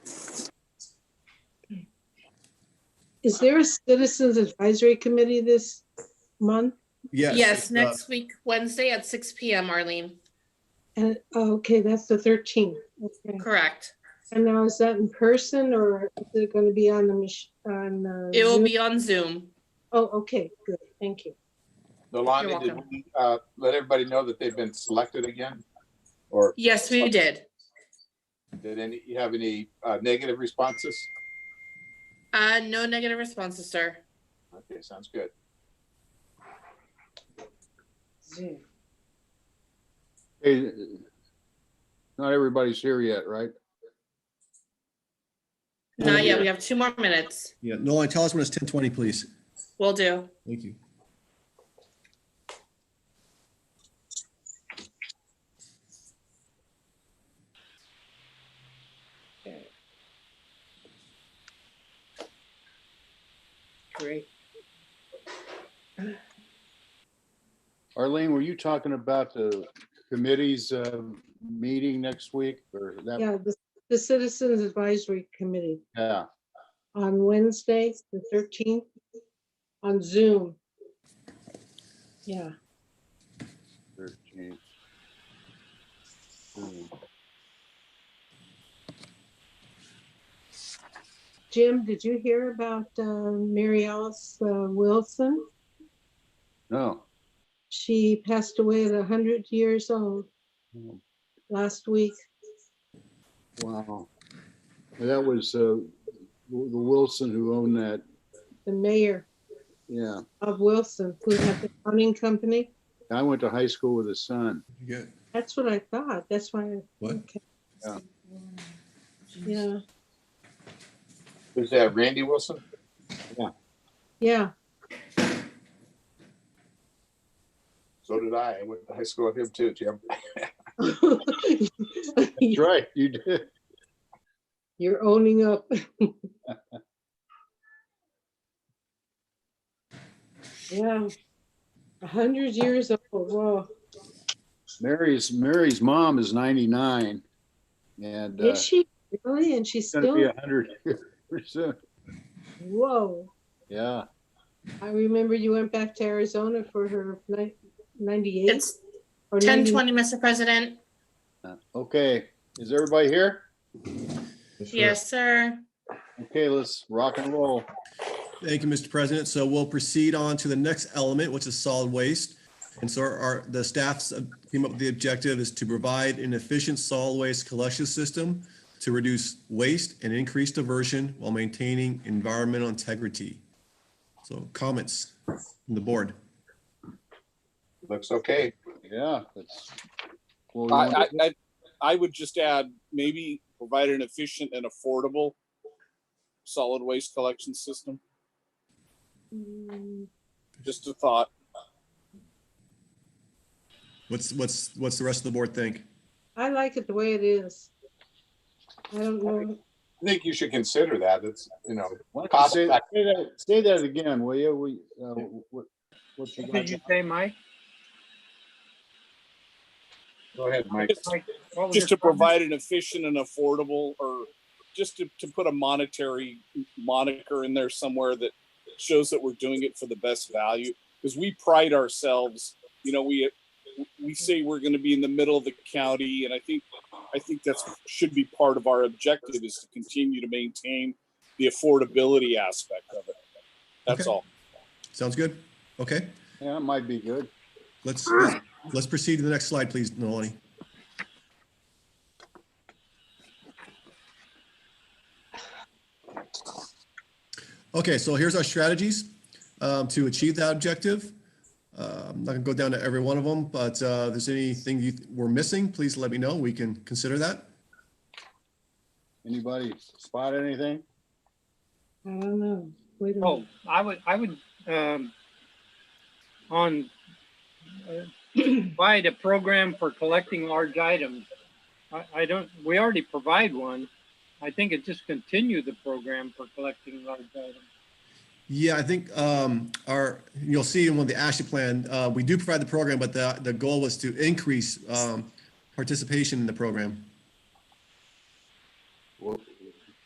Is there a citizens advisory committee this month? Yes. Yes, it's, uh, next week, Wednesday at six PM, Arlene. And, oh, okay, that's the thirteenth. Okay. Correct. And now is that in person or is it going to be on the mach- on? uh, It will Zoom? be on Zoom. Oh, okay, good, thank you. Nolani, did welcome. we, uh, let everybody know that they've been selected again? Or Yes, we did. did any, you have any, uh, negative responses? Uh, no negative responses, sir. Okay, sounds good. Zoom. Hey, not everybody's here yet, right? Not yet. We have two more minutes. Yeah, Nolan, tell us when it's ten twenty, please. Will do. Thank you. Great. Arlene, were you talking about the committee's uh, meeting next week or that? Yeah, the, the citizens advisory committee Yeah, on Wednesday, the thirteenth, on Zoom. Yeah, 13. Hmm. Jim, did you hear about uh, Mary Alice uh, Wilson? No. She passed away at hundred years old last week. Wow. That was uh, the Wilson who owned that. The mayor Yeah. of Wilson, who had the plumbing company. I went to high school with his son. Good. That's what I thought. That's why. I- What? okay. Yeah. Yeah, Who's that, Randy Wilson? yeah. So did I. I went to high school with him too, Jim. That's right. You did. You're owning up. Yeah. A hundred years old, whoa. Mary's, Mary's mom is 99 and uh, Is she's she really? And she's going to be still, 100 here soon. whoa. Yeah. I remember you went back to Arizona for her ni- ninety-eight. It's or ten 90 twenty, Mr. President. Okay. Is everybody here? Yes, sir. Okay, let's rock and roll. Thank you, Mr. President. So we'll proceed on to the next element, which is solid waste. And so our, the staffs uh, came up with the objective is to provide an efficient solid waste collection system to reduce waste and increase diversion while maintaining environmental integrity. So comments from the board? Looks okay. Yeah, that's. well, we I, want- I, I- I would just add, maybe provide an efficient and affordable solid waste collection system, Mm, just a thought. What's, what's, what's the rest of the board think? I like it the way it is. I don't know. I think you should consider that. It's, you know, why don't you Say say that- say that again, will you? We, uh, what, what you Did got? you say, Mike? go ahead, Mike. Just- Mike, what was Just to your comment? provide an efficient and affordable, or just to, to put a monetary moniker in there somewhere that shows that we're doing it for the best value, because we pride ourselves, you know, we, we say we're gonna be in the middle of the county, and I think, I think that's, should be part of our objective is to continue to maintain the affordability aspect of it. That's Okay. all. Sounds good? Okay, Yeah, it might be good. let's, let's- let's proceed to the next slide, please, Nolani. Okay, so here's our strategies um, to achieve that objective. Uh, I'm not gonna go down to every one of them, but uh, if there's anything you th- we're missing, please let me know. We can consider that. Anybody spot anything? I don't know. Wait a minute. Oh, I would, I would, um, on, uh, provide a program for collecting large items. I, I don't, we already provide one. I think it just continue the program for collecting large items. Yeah, I think um, our, you'll see in one of the action plan, uh, we do provide the program, but the, the goal was to increase um, participation in the program.